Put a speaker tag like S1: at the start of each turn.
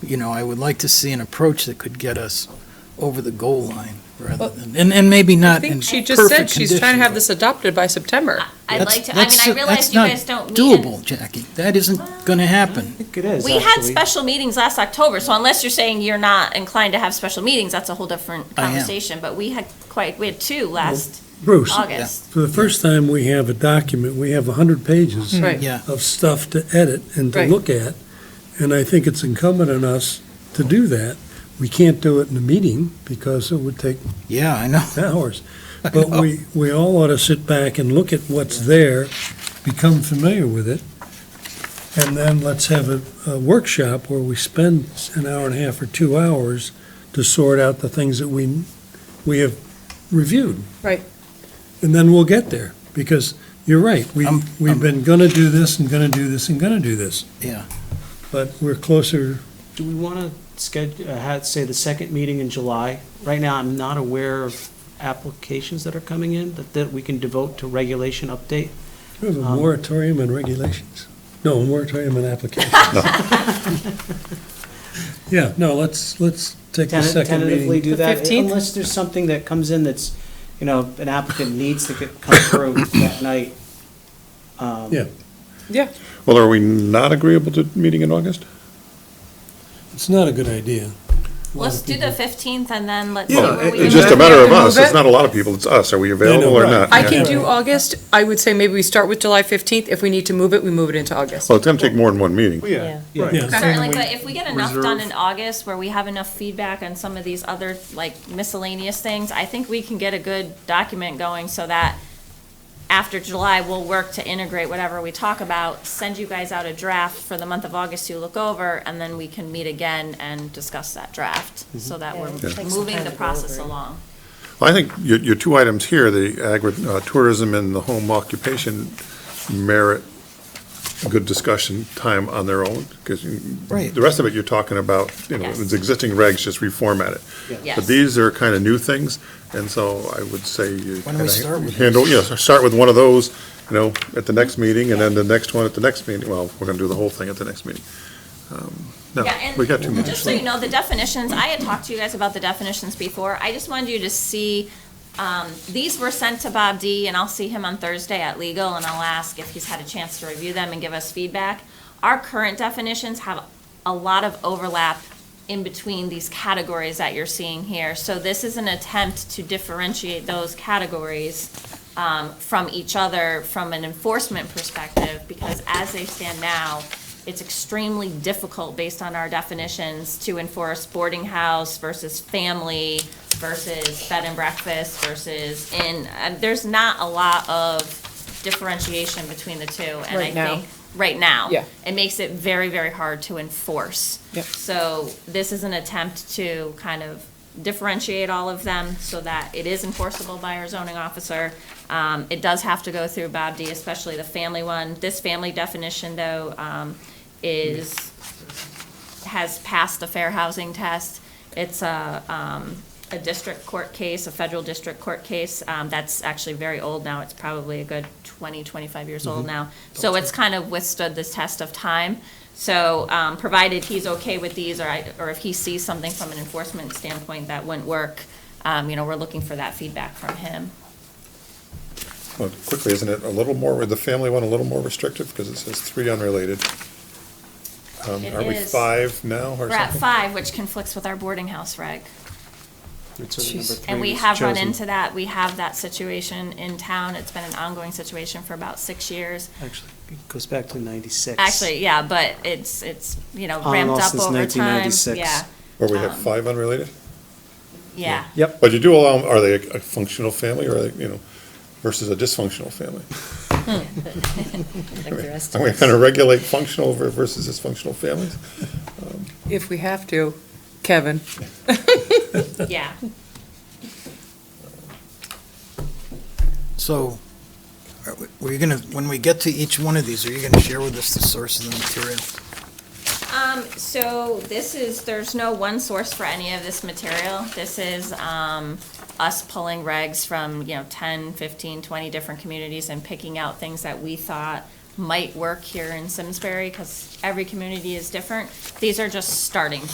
S1: you know, I would like to see an approach that could get us over the goal line rather than, and, and maybe
S2: I
S1: not in
S2: think
S1: perfect
S2: she just said she's trying to have
S1: condition,
S2: this adopted by September.
S3: I'd
S1: but
S3: like to,
S1: that's-
S3: I mean, I
S1: that's-
S3: realize
S1: that's
S3: you
S1: not
S3: guys don't meet. in-
S1: Doable, Jackie. That isn't going to happen.
S4: think it is,
S3: We had
S4: actually.
S3: special meetings last October, so unless you're saying you're not inclined to have special meetings, that's a whole different
S1: I am.
S3: conversation. But we had quite, we had two last
S5: Bruce,
S3: August.
S5: for the first time, we have a document, we have 100 pages
S2: Hmm. Right.
S1: Yeah.
S5: of stuff to edit and to
S2: Right.
S5: look at, and I think it's incumbent on us to do that. We can't do it in a meeting because it would take
S1: Yeah, I know.
S5: hours, but we, we all ought to sit back and look at what's there, become familiar with it, and then let's have a, a workshop where we spend an hour and a half or two hours to sort out the things that we, we have reviewed.
S2: Right.
S5: And then we'll get there, because you're right, we,
S1: I'm- I'm-
S5: we've been gonna do this and gonna do this and gonna do this.
S1: Yeah.
S5: But we're closer,
S4: Do we want to schedule, have, say, the second meeting in July? Right now, I'm not aware of applications that are coming in that, that we can devote to regulation update.
S5: we have a
S4: Um,
S5: moratorium on regulations. No, a moratorium on applications. Yeah, no, let's, let's take the
S4: Tenta-
S5: second
S4: Tentatively
S5: meeting.
S4: do
S2: The
S4: that,
S2: 15th?
S4: unless there's something that comes in that's, you know, an applicant needs to get, come through that night. Um,
S5: Yeah.
S2: Yeah.
S6: Well, are we not agreeable to meeting in August?
S5: It's not a good idea. A lot
S3: Let's
S5: of
S3: do the
S5: people-
S3: fifteenth and then let's see
S5: Yeah,
S3: where we.
S6: It's
S3: end
S6: just a
S3: up.
S6: matter of
S2: Can we
S6: us.
S2: move
S6: It's
S2: it?
S6: not a lot of people. It's us. Are we available or
S5: right.
S6: not?
S2: I can
S6: Yeah.
S2: do August. I would say maybe we start with July 15th. If we need to move it, we move it into August.
S6: Well, it's going to take more than one meeting.
S7: Yeah.
S5: Yeah.
S3: Certainly, but if we get enough done
S6: reserve-
S3: in August where we have enough feedback on some of these other like miscellaneous things, I think we can get a good document going so that after July, we'll work to integrate whatever we talk about, send you guys out a draft for the month of August to look over, and then we can meet again and discuss that draft so that we're
S7: Mm-hmm. Yeah, take some
S3: moving
S7: time
S3: the
S7: to go
S3: process
S7: over it.
S3: along.
S6: Well, I think your, your two items here, the agritourism and the home occupation merit good discussion time on their own, because
S1: Right.
S6: the rest of it you're talking about, you know,
S3: Yes.
S6: it's existing regs, just reformat it. But
S3: Yes.
S6: these are kind of new things, and so I would say you
S1: Why don't we
S6: kind
S1: start with
S6: of handle, yes, start with one of those, you know, at the next meeting, and then the next one at the next meeting. Well, we're going to do the whole thing at the next meeting. Um, No,
S3: Yeah, and
S6: we got too much.
S3: Just so you know, the definitions, I had talked to you guys about the definitions before. I just wanted you to see, um, these were sent to Bob D, and I'll see him on Thursday at legal, and I'll ask if he's had a chance to review them and give us feedback. Our current definitions have a lot of overlap in between these categories that you're seeing here. So this is an attempt to differentiate those categories um, from each other from an enforcement perspective, because as they stand now, it's extremely difficult, based on our definitions, to enforce boarding house versus family versus bed and breakfast versus inn. Uh, There's not a lot of differentiation between the two. and I
S2: Right now.
S3: think Right now.
S2: Yeah.
S3: It makes it very, very hard to enforce.
S2: Yep.
S3: So this is an attempt to kind of differentiate all of them so that it is enforceable by our zoning officer. Um, it does have to go through Bob D, especially the family one. This family definition, though, um, is, has passed the fair housing test. It's a, um, a district court case, a federal district court case, um, that's actually very old now. It's probably a good 20, 25 years old now. So it's kind of withstood the test of time. So, um, provided he's okay with these, or I, or if he sees something from an enforcement standpoint that wouldn't work, um, you know, we're looking for that feedback from him.
S6: Well, Quickly, isn't it a little more, with the family one, a little more restrictive, because it says three unrelated? Um,
S3: It
S6: Are we
S3: is.
S6: five now or
S3: We're at
S6: something?
S3: five, which conflicts with our boarding house reg.
S4: It's sort of number
S3: And
S4: three
S3: we
S4: was
S3: have run
S4: chosen.
S3: into that, we have that situation in town, it's been an ongoing situation for about six years.
S4: Actually, it goes back to ninety-six.
S3: Actually, yeah, but it's, it's, you know,
S4: On and
S3: ramped
S4: off
S3: up
S4: since
S3: over time,
S4: 1996.
S3: yeah,
S6: Where we have
S3: um,
S6: five unrelated?
S3: yeah.
S4: Yep.
S6: But you do allow, 'em- are they a a functional family or, are they, you know, versus a dysfunctional family?
S7: Like the rest
S6: Are
S7: of
S6: we
S7: us.
S6: going to regulate functional ver- versus dysfunctional families?
S2: If we have to, Kevin.
S3: Yeah,
S1: So are we- we're going to, when we get to each one of these, are you going to share with us the source of the material?
S3: um, so this is, there's no one source for any of this material. This is, um, us pulling regs from, you know, 10, 15, 20 different communities and picking out things that we thought might work here in Simsbury, because every community is different. These are just starting